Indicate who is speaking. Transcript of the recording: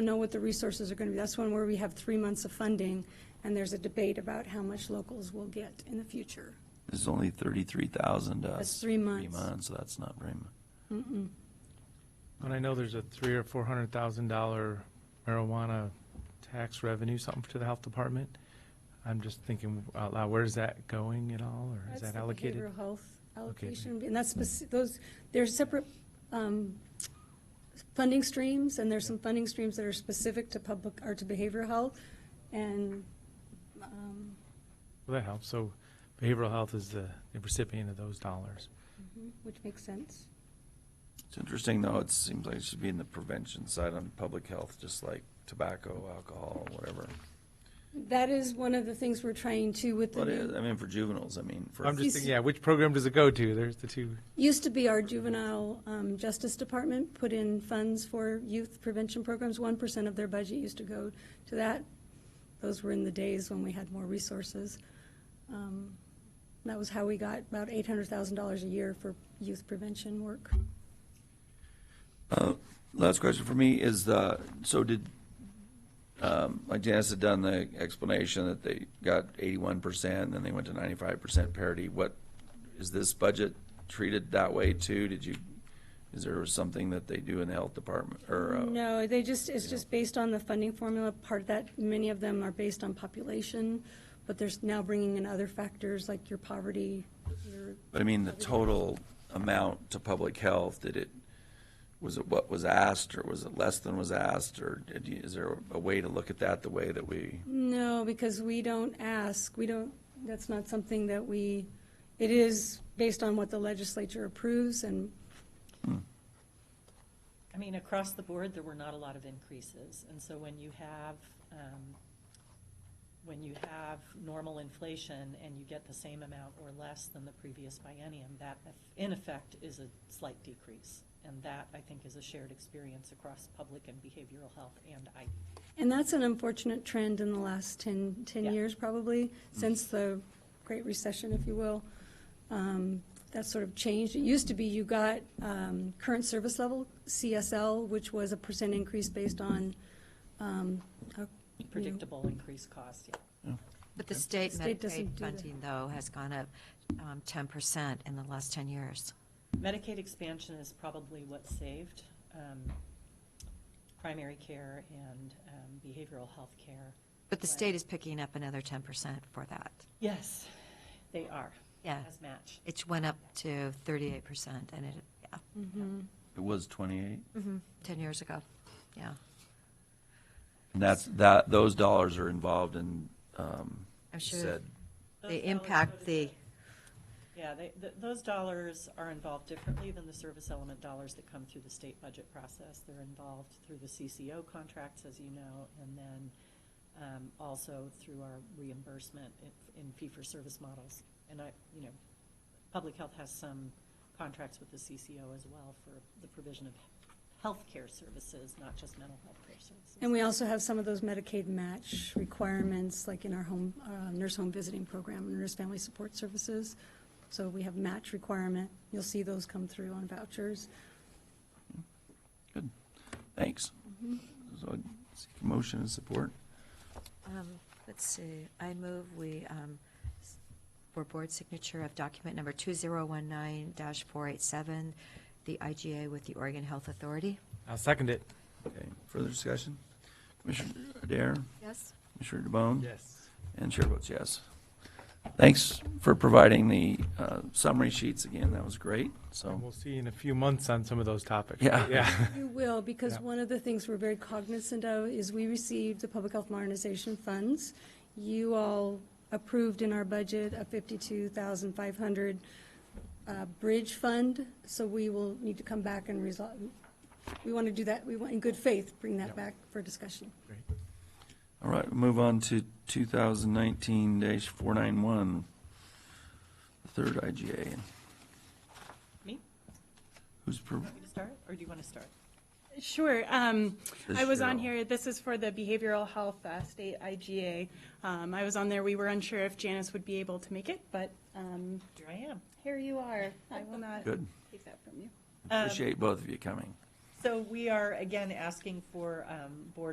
Speaker 1: know what the resources are going to be. That's one where we have three months of funding, and there's a debate about how much locals will get in the future.
Speaker 2: It's only thirty-three thousand to us.
Speaker 1: That's three months.
Speaker 2: so that's not very much.
Speaker 3: And I know there's a three or four hundred thousand dollar marijuana tax revenue, something to the health department. I'm just thinking out loud, where is that going at all, or is
Speaker 1: That's
Speaker 3: that
Speaker 1: the
Speaker 3: allocated?
Speaker 1: Behavioral health allocation, and that's, speci- those, they're separate um, funding streams, and there's some funding streams that are specific to public, or to behavioral health, and um,
Speaker 3: Well, that helps. So behavioral health is the the recipient of those dollars.
Speaker 1: mm-hmm, which makes sense.
Speaker 2: It's interesting, though, it seems like it should be in the prevention side on public health, just like tobacco, alcohol, whatever.
Speaker 1: That is one of the things we're trying to with the
Speaker 2: But
Speaker 1: new,
Speaker 2: it, I mean, for juveniles, I mean, for.
Speaker 3: I'm just
Speaker 1: He's-
Speaker 3: thinking, yeah, which program does it go to? There's the two.
Speaker 1: used to be our juvenile um, justice department put in funds for youth prevention programs. One percent of their budget used to go to that. Those were in the days when we had more resources. Um, That was how we got about eight hundred thousand dollars a year for youth prevention work.
Speaker 2: Uh, Last question for me is, uh, so did, um, like Janice had done the explanation that they got eighty-one percent, then they went to ninety-five percent parity. What, is this budget treated that way too? Did you, is there something that they do in the health department, or? uh,
Speaker 1: No, they just, it's just based on the funding formula. Part of that, many of them are based on population, but there's now bringing in other factors like your poverty, your
Speaker 2: But I mean, the total amount to public health, did it, was it what was asked, or was it less than was asked, or did you, is there a way to look at that the way that we?
Speaker 1: No, because we don't ask, we don't, that's not something that we, it is based on what the legislature approves and,
Speaker 4: I mean, across the board, there were not a lot of increases, and so when you have, um, when you have normal inflation and you get the same amount or less than the previous biennium, that in effect is a slight decrease. And that, I think, is a shared experience across public and behavioral health and I. E.
Speaker 1: and that's an unfortunate trend in the last 10, 10
Speaker 4: Yeah. Mm-hmm.
Speaker 1: years probably, since the Great Recession, if you will. Um, That sort of changed. It used to be you got um, current service level, CSL, which was a percent increase based on um, a-
Speaker 4: predictable increased cost, yeah.
Speaker 5: But the state
Speaker 1: State doesn't
Speaker 5: Medicaid
Speaker 1: do that.
Speaker 5: funding, though, has gone up um, 10% in the last 10 years.
Speaker 4: Medicaid expansion is probably what saved um, primary care and um, behavioral health care.
Speaker 5: But the
Speaker 4: Right.
Speaker 5: state is picking up another 10% for that.
Speaker 4: Yes, they are.
Speaker 5: Yeah.
Speaker 4: As match.
Speaker 5: It went up to 38% and it, yeah,
Speaker 1: Mm-hmm.
Speaker 2: It was twenty-eight.
Speaker 5: 10 years ago. Yeah.
Speaker 2: And that's, that, those dollars are involved in, um, you
Speaker 5: I'm sure
Speaker 2: said,
Speaker 4: Those
Speaker 5: they
Speaker 4: dollars go
Speaker 5: impact
Speaker 4: to
Speaker 5: the,
Speaker 4: Yeah, they, th- those dollars are involved differently than the service element dollars that come through the state budget process. They're involved through the CCO contracts, as you know, and then um, also through our reimbursement in- in fee-for-service models. And I, you know, public health has some contracts with the CCO as well for the provision of healthcare services, not just mental health care services.
Speaker 1: And we also have some of those Medicaid match requirements, like in our home, uh, nurse home visiting program, nurse family support services. So we have match requirement. You'll see those come through on vouchers.
Speaker 2: thanks. So, I seek a motion and support.
Speaker 5: um, let's see, I move we, um, s- for board signature of document number 2019-487, the IGA with the Oregon Health Authority.
Speaker 3: I'll second it.
Speaker 2: Okay, further discussion? Commissioner Dare,
Speaker 5: Yes.
Speaker 2: Commissioner DeBonne?
Speaker 3: Yes.
Speaker 2: And chair votes yes. Thanks for providing the uh, summary sheets again, that was great,
Speaker 3: And
Speaker 2: so.
Speaker 3: we'll see in a few months on some of those topics.
Speaker 2: Yeah.
Speaker 3: Yeah.
Speaker 1: You will, because
Speaker 3: Yeah.
Speaker 1: one of the things we're very cognizant of is we received the Public Health Modernization Funds. You all approved in our budget a fifty-two thousand five hundred, uh, bridge fund, so we will need to come back and resolve. We want to do that, we want, in good faith, bring that back for discussion.
Speaker 2: All right, move on to 2019-491, the third IGA.
Speaker 4: Me?
Speaker 2: Who's, pro-
Speaker 4: You start, or do you want to start?
Speaker 6: Sure. Um,
Speaker 2: This
Speaker 6: I was on
Speaker 2: Cheryl.
Speaker 6: here, this is for the Behavioral Health uh, State IGA. Um, I was on there, we were unsure if Janice would be able to make it, but um,
Speaker 4: Here I am.
Speaker 6: here you are. I will not
Speaker 2: good,
Speaker 6: take that from you.
Speaker 2: appreciate both of you coming.
Speaker 4: So we are again asking for um, board